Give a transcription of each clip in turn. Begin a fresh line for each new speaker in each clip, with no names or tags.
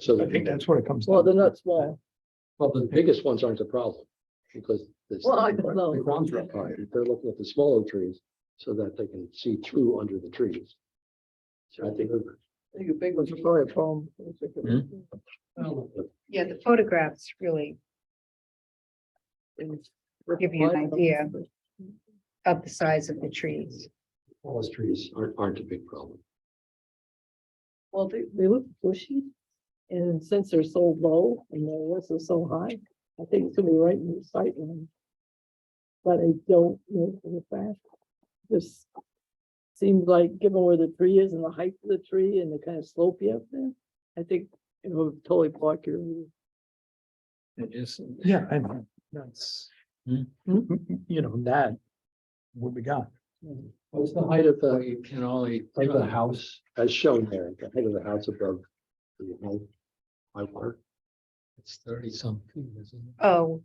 So
I think
the,
that's what it comes.
Well,
down
they're
to.
not small.
well, the biggest ones aren't the problem, because. the-
Well, I don't know.
The grounds are up high, they're looking at the smaller trees so that they can see through under the trees. So I think.
I think the big ones are probably a problem.
Yeah, the photographs really give you an idea of the size of the trees.
Tallest trees aren't, aren't a big problem.
Well, they, they look bushy, and since they're so low and their roots are so high, I think it's gonna be right in the sight line. But I don't know for the fact. This seems like, given where the tree is and the height of the tree and the kind of slope you have there, I think it would totally block your. view.
It is,
Yeah, I know, that's.
Hmm.
You know, that. What we got.
What's the height of
well,
the,
you can only,
height of the house as shown there, the height of the house above? the high- High water,
it's thirty something, isn't it?
Oh.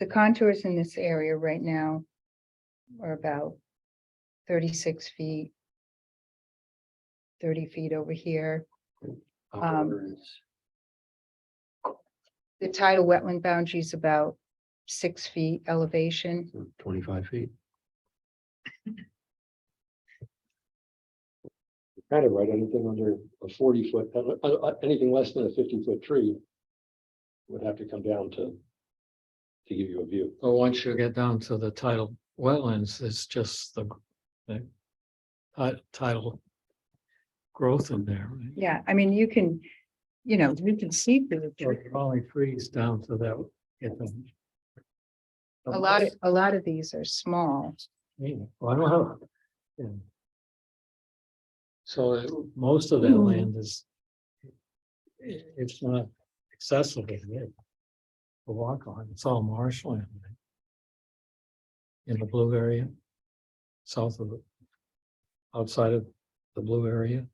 The contours in this area right now are about thirty-six feet. Thirty feet over here.
high
Um,
water is.
The tidal wetland boundary is about six feet elevation.
So Twenty-five feet. Kind of right, anything under a forty foot, uh, uh, uh, anything less than a fifty foot tree. Would have to come down to. To give you a view.
But once you get down to the tidal wetlands, it's just the, the ti- tidal growth in there. right?
Yeah, I mean, you can, you know, you can see through the
So
tree.
it Only freeze down to that. get them.
A lot of, a lot of these are small.
Yeah, well, I don't know. Yeah. So it- most of that
Hmm.
land is. i- It's not accessible yet. To walk on, it's all marshland. right? In the blue area. South of. it, Outside of the blue area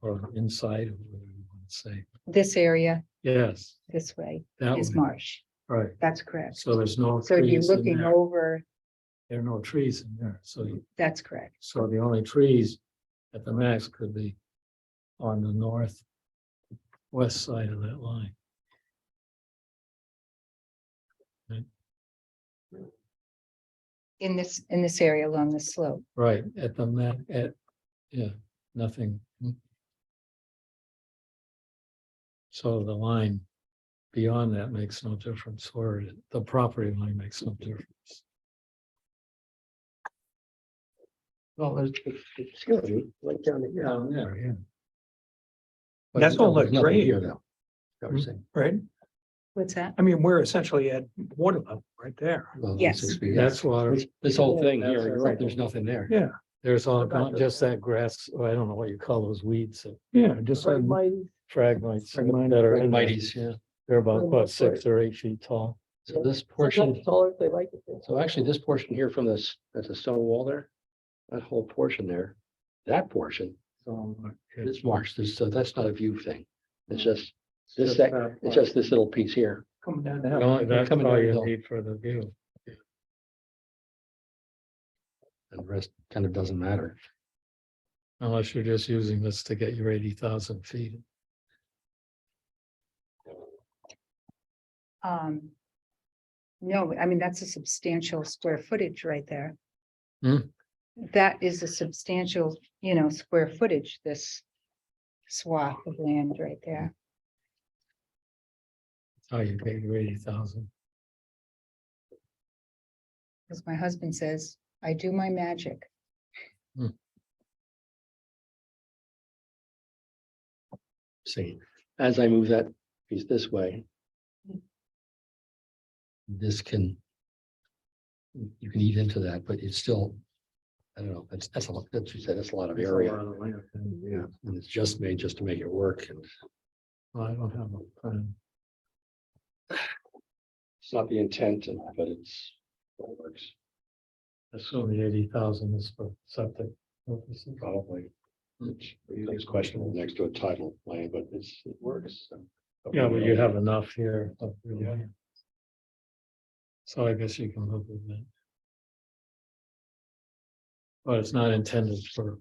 or inside, or whatever you want to say.
This area
Yes,
this way
that
is
one,
marsh.
right.
That's correct.
So there's no
So you're
trees in
looking
there.
over,
There are no trees in there, so you
that's correct.
So the only trees at the max could be on the north west side of that line.
In this, in this area along the slope.
Right, at the ma- at, yeah, nothing. So the line beyond that makes no difference, or the property line makes no difference.
Well, it's, it's gonna be right down here.
Down there, yeah.
But
That's all
there's
the
nothing
grade.
Here now. That we're saying.
Right?
What's that?
I mean, we're essentially at water level right there.
Well,
Yes.
six feet.
That's water.
This- This whole thing
That's
here, you're
our-
right, there's nothing there.
Yeah,
There's all,
About
gone- just that grass, oh, I don't know what you call those weeds, that
yeah, just.
Right,
um,
my-
fragmites that are in there.
Mighties, yeah.
They're about,
Right,
what,
that's right.
six or eight feet tall.
So this portion.
sometimes Taller, if they like it.
So actually, this portion here from this, that's a stone wall there, that whole portion there, that portion
So, uh, yeah.
is marsh, This- so that's not a view thing. It's just, this
Just
sec-
that
it's
part.
just this little piece here.
uh, Coming down the
You
hill.
know, That's
coming
all
down the
you
hill.
need for the view.
And the rest kind of doesn't matter.
Unless you're just using this to get your eighty thousand feet.
Um. No, I mean, that's a substantial square footage right there.
Hmm.
That is a substantial, you know, square footage, this swath of land right there.
That's How you get your eighty thousand.
As my husband says, I do my magic.
See, as I move that piece this way. This can. You can eat into that, but it's still, I don't know, that's, that's a lot, that's, you said, that's a lot of area. Yeah, and it's just made just to make it work and
Well, I don't have a plan.
it's not the intent, and- but it's. it works.
Assuming eighty thousand is for septic. purposes.
Probably. It's it's questionable next to a title land, but it's, it works. so.
Yeah, but you have enough here. up your way. So I guess you can live with that. But it's not intended for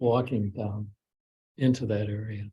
walking down into that area.